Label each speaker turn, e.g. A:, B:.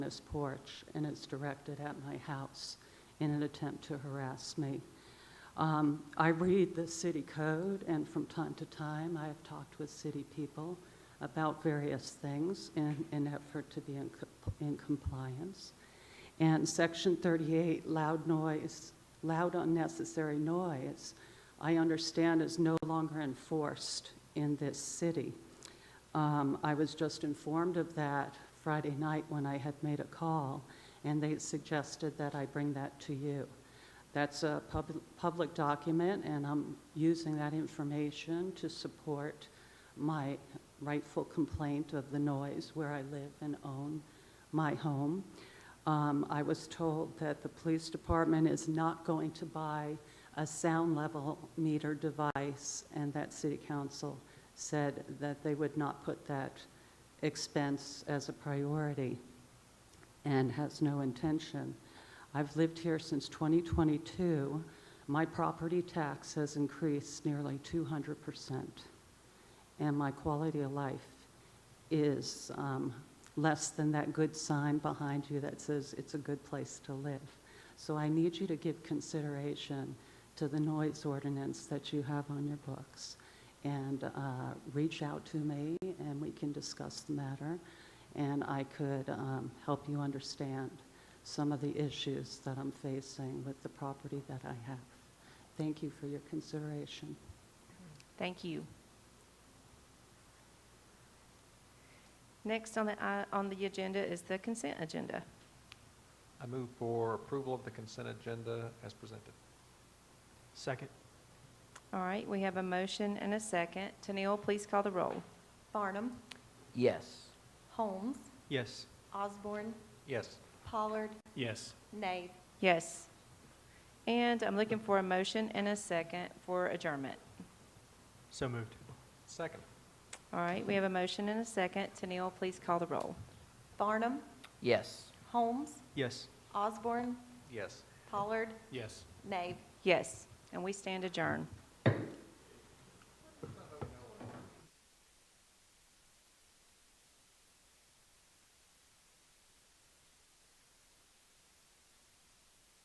A: this porch, and it's directed at my house in an attempt to harass me. Um, I read the city code, and from time to time, I have talked with city people about various things in an effort to be in co- in compliance. And Section 38, loud noise, loud unnecessary noise, I understand is no longer enforced in this city. Um, I was just informed of that Friday night when I had made a call, and they suggested that I bring that to you. That's a pub- public document, and I'm using that information to support my rightful complaint of the noise where I live and own my home. Um, I was told that the police department is not going to buy a sound level meter device, and that city council said that they would not put that expense as a priority and has no intention. I've lived here since 2022. My property tax has increased nearly 200%, and my quality of life is um, less than that good sign behind you that says it's a good place to live. So I need you to give consideration to the noise ordinance that you have on your books and uh, reach out to me, and we can discuss the matter, and I could um, help you understand some of the issues that I'm facing with the property that I have. Thank you for your consideration.
B: Thank you. Next on the, i- on the agenda is the consent agenda.
C: I move for approval of the consent agenda as presented.
D: Second.
B: All right, we have a motion and a second. Tanil, please call the roll.
E: Barnum,
F: Yes.
E: Holmes,
D: Yes.
E: Osborne,
C: Yes.
E: Pollard,
D: Yes.
E: Nave.
B: Yes. And I'm looking for a motion and a second for adjournment.
D: So moved.
C: Second.
B: All right, we have a motion and a second. Tanil, please call the roll.
E: Barnum,
F: Yes.
E: Holmes,
D: Yes.
E: Osborne,
C: Yes.
E: Pollard,
D: Yes.
E: Nave.
B: Yes, and we stand adjourned.